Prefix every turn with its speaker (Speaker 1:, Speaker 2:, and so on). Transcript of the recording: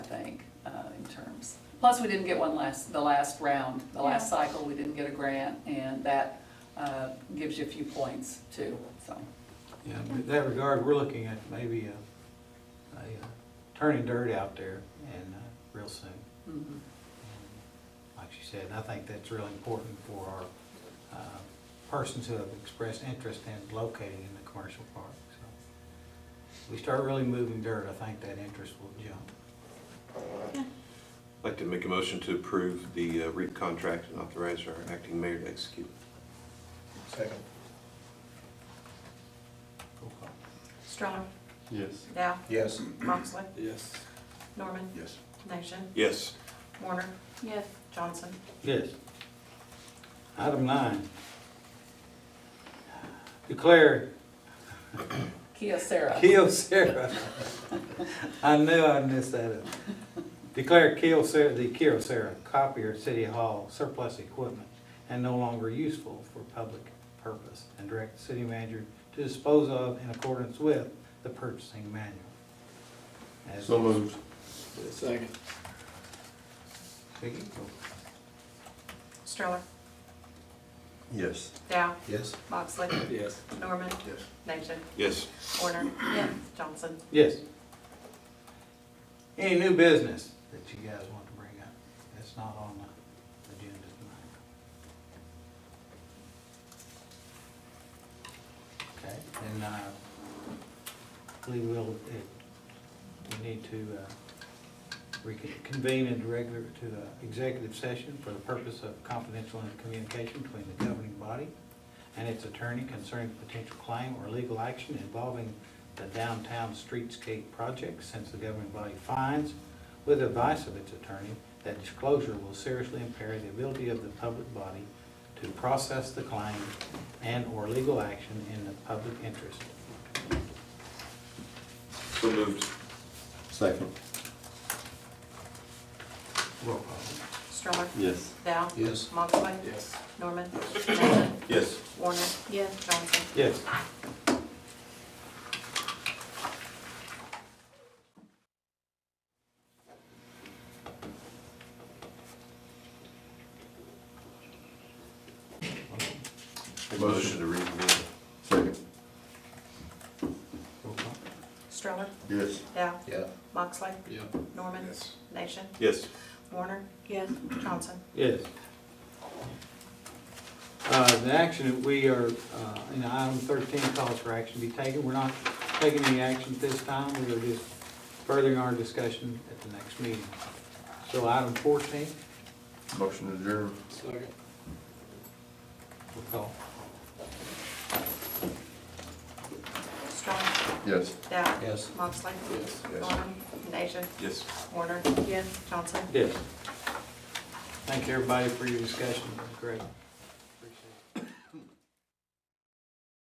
Speaker 1: uh, Plus, we didn't get one last, the last round, the last
Speaker 2: Yeah.
Speaker 1: cycle, we didn't get a grant, and that uh, gives you a few points too, so.
Speaker 3: Yeah, in that regard, we're looking at maybe a, a uh, turning dirt out there and, uh, real soon.
Speaker 1: mhm.
Speaker 3: Like she said, and I think that's really important for our, uh, persons who have expressed interest in locating in the commercial park, so. We start really moving dirt, I think that interest will jump.
Speaker 4: I'd like to make a motion to approve the uh, REAP contract and authorize our acting mayor to execute.
Speaker 5: Second.
Speaker 3: Roll call.
Speaker 2: Strong,
Speaker 6: Yes.
Speaker 2: Dow,
Speaker 5: Yes.
Speaker 2: Moxley,
Speaker 6: Yes.
Speaker 2: Norman,
Speaker 5: Yes.
Speaker 2: Nation,
Speaker 4: Yes.
Speaker 2: Warner,
Speaker 7: Yes.
Speaker 2: Johnson.
Speaker 3: Yes. Item nine. Declare
Speaker 1: Kyocera.
Speaker 3: Kyocera. I knew I'd miss that. up. Declare Kyocera, the Kyocera copier at City Hall surplus equipment and no longer useful for public purpose and direct the city manager to dispose of in accordance with the purchasing manual. As-
Speaker 6: So moved. Second.
Speaker 3: Vicky, go.
Speaker 2: Stroller,
Speaker 6: Yes.
Speaker 2: Dow,
Speaker 5: Yes.
Speaker 2: Moxley,
Speaker 6: Yes.
Speaker 2: Norman,
Speaker 5: Yes.
Speaker 2: Nation,
Speaker 4: Yes.
Speaker 2: Warner,
Speaker 7: Yes.
Speaker 2: Johnson.
Speaker 3: Yes. Any new business that you guys want to bring up? That's not on the agenda tonight. Okay, then, uh, I believe we'll, it, we need to, uh, reconvene into regular, to, uh, executive session for the purpose of confidential communication between the governing body and its attorney concerning potential claim or legal action involving the downtown streetscape project, since the governing body finds, with advice of its attorney, that disclosure will seriously impair the ability of the public body to process the claim and/or legal action in the public interest.
Speaker 4: So moved.
Speaker 6: Second.
Speaker 3: Roll call.
Speaker 2: Stroller,
Speaker 6: Yes.
Speaker 2: Dow,
Speaker 5: Yes.
Speaker 2: Moxley,
Speaker 6: Yes.
Speaker 2: Norman, Nation,
Speaker 4: Yes.
Speaker 2: Warner,
Speaker 7: Yes.
Speaker 2: Johnson.
Speaker 3: Yes.
Speaker 4: Motion to reconvene.
Speaker 6: Second.
Speaker 3: Roll call.
Speaker 2: Stroller,
Speaker 6: Yes.
Speaker 2: Dow,
Speaker 5: Yeah.
Speaker 2: Moxley,
Speaker 6: Yeah.
Speaker 2: Norman, Nation,
Speaker 4: Yes.
Speaker 2: Warner,
Speaker 7: Yes.
Speaker 2: Johnson.
Speaker 3: Yes. Uh, The action, that we are, uh, in item 13, calls for action to be taken. We're not taking any action at this time. We are just furthering our discussion at the next meeting. So item 14,
Speaker 6: Motion adjourned.
Speaker 3: we'll call.
Speaker 2: Stroller,
Speaker 6: Yes.
Speaker 2: Dow,
Speaker 5: Yes.
Speaker 2: Moxley,
Speaker 6: Yes. Yes.
Speaker 2: Norman, Nation,
Speaker 4: Yes.
Speaker 2: Warner,
Speaker 7: Yes.
Speaker 2: Johnson.
Speaker 3: Yes. Thank everybody for your discussion. It was great.